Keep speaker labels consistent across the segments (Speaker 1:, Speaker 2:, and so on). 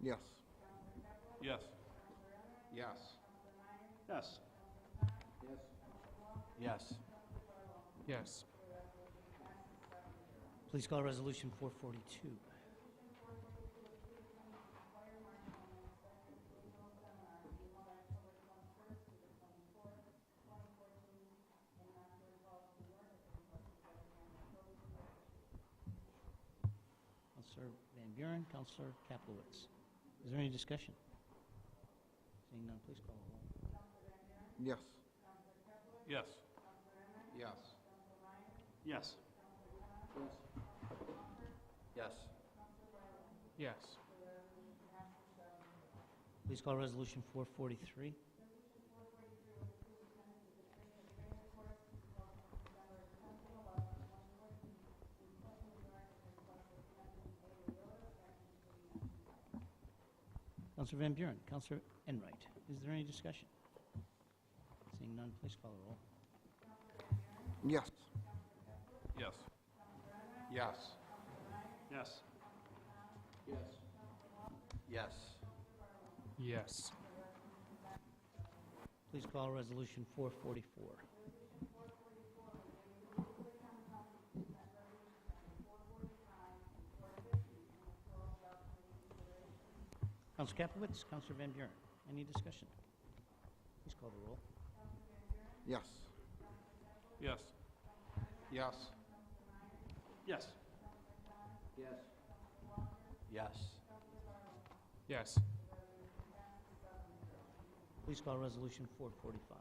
Speaker 1: Yes.
Speaker 2: Yes.
Speaker 1: Yes.
Speaker 2: Yes.
Speaker 1: Yes.
Speaker 3: Yes.
Speaker 4: Please call Resolution 442. Counselor Van Buren, Counselor Kaplowitz. Is there any discussion? Seeing none, please call the roll.
Speaker 1: Yes.
Speaker 2: Yes.
Speaker 1: Yes.
Speaker 2: Yes.
Speaker 1: Yes.
Speaker 3: Yes.
Speaker 4: Please call Resolution 443. Counselor Van Buren, Counselor Enright, is there any discussion? Seeing none, please call the roll.
Speaker 1: Yes.
Speaker 2: Yes.
Speaker 1: Yes.
Speaker 2: Yes.
Speaker 1: Yes.
Speaker 3: Yes.
Speaker 4: Please call Resolution 444. Counsel Capelitz, Counselor Van Buren, any discussion? Please call the roll.
Speaker 1: Yes.
Speaker 2: Yes.
Speaker 1: Yes.
Speaker 2: Yes.
Speaker 1: Yes. Yes.
Speaker 3: Yes.
Speaker 4: Please call Resolution 445.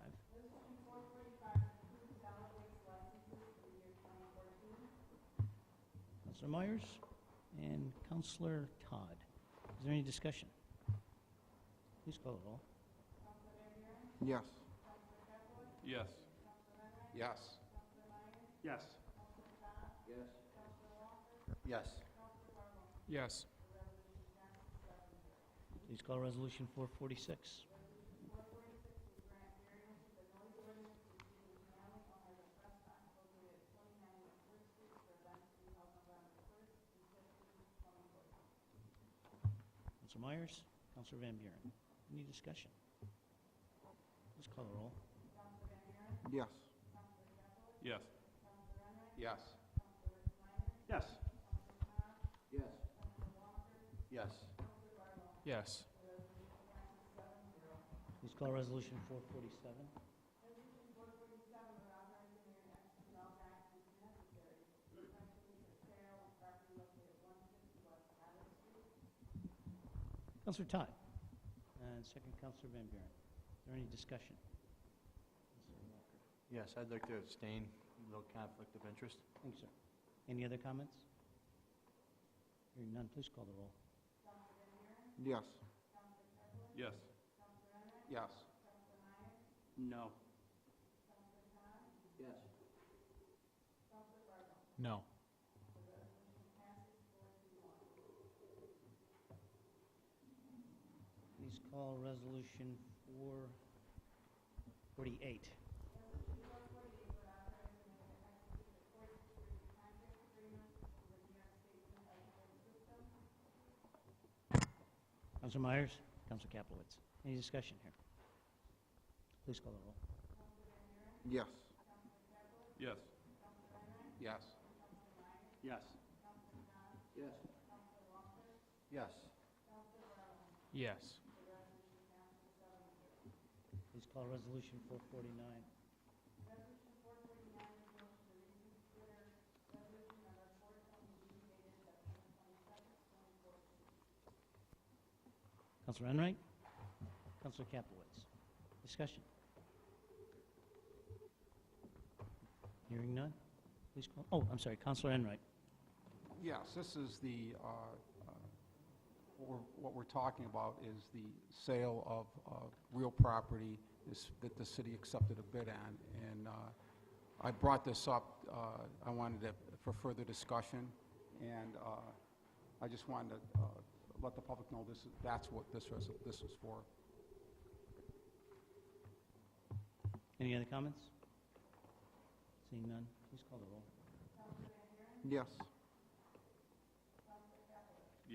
Speaker 4: Counselor Myers and Counselor Todd. Is there any discussion? Please call the roll.
Speaker 1: Yes.
Speaker 2: Yes.
Speaker 1: Yes.
Speaker 2: Yes.
Speaker 1: Yes.
Speaker 3: Yes.
Speaker 4: Please call Resolution 446. Counselor Myers, Counselor Van Buren, any discussion? Please call the roll.
Speaker 1: Yes.
Speaker 2: Yes.
Speaker 1: Yes.
Speaker 2: Yes.
Speaker 1: Yes. Yes.
Speaker 3: Yes.
Speaker 4: Please call Resolution 447. Counselor Todd, and second Counselor Van Buren. Is there any discussion? Counselor Walker.
Speaker 5: Yes, I'd like to abstain, no conflict of interest.
Speaker 4: Thank you, sir. Any other comments? Hearing none, please call the roll.
Speaker 1: Yes.
Speaker 2: Yes.
Speaker 1: Yes.
Speaker 2: No.
Speaker 1: Yes.
Speaker 3: No.
Speaker 4: Please call Resolution 448. Counselor Myers, Counselor Kaplowitz, any discussion here? Please call the roll.
Speaker 1: Yes.
Speaker 2: Yes.
Speaker 1: Yes.
Speaker 2: Yes.
Speaker 1: Yes. Yes.
Speaker 3: Yes.
Speaker 4: Please call Resolution 449. Counselor Enright? Counselor Capelowitz? Discussion? Hearing none? Please call, oh, I'm sorry, Counselor Enright.
Speaker 6: Yes, this is the, uh, uh, what we're- what we're talking about is the sale of uh, real property is- that the city accepted a bid on. And uh, I brought this up, uh, I wanted it for further discussion, and uh, I just wanted to uh, let the public know this, is- that's what this res- this is for.
Speaker 4: Any other comments? Seeing none, please call the roll.
Speaker 1: Yes.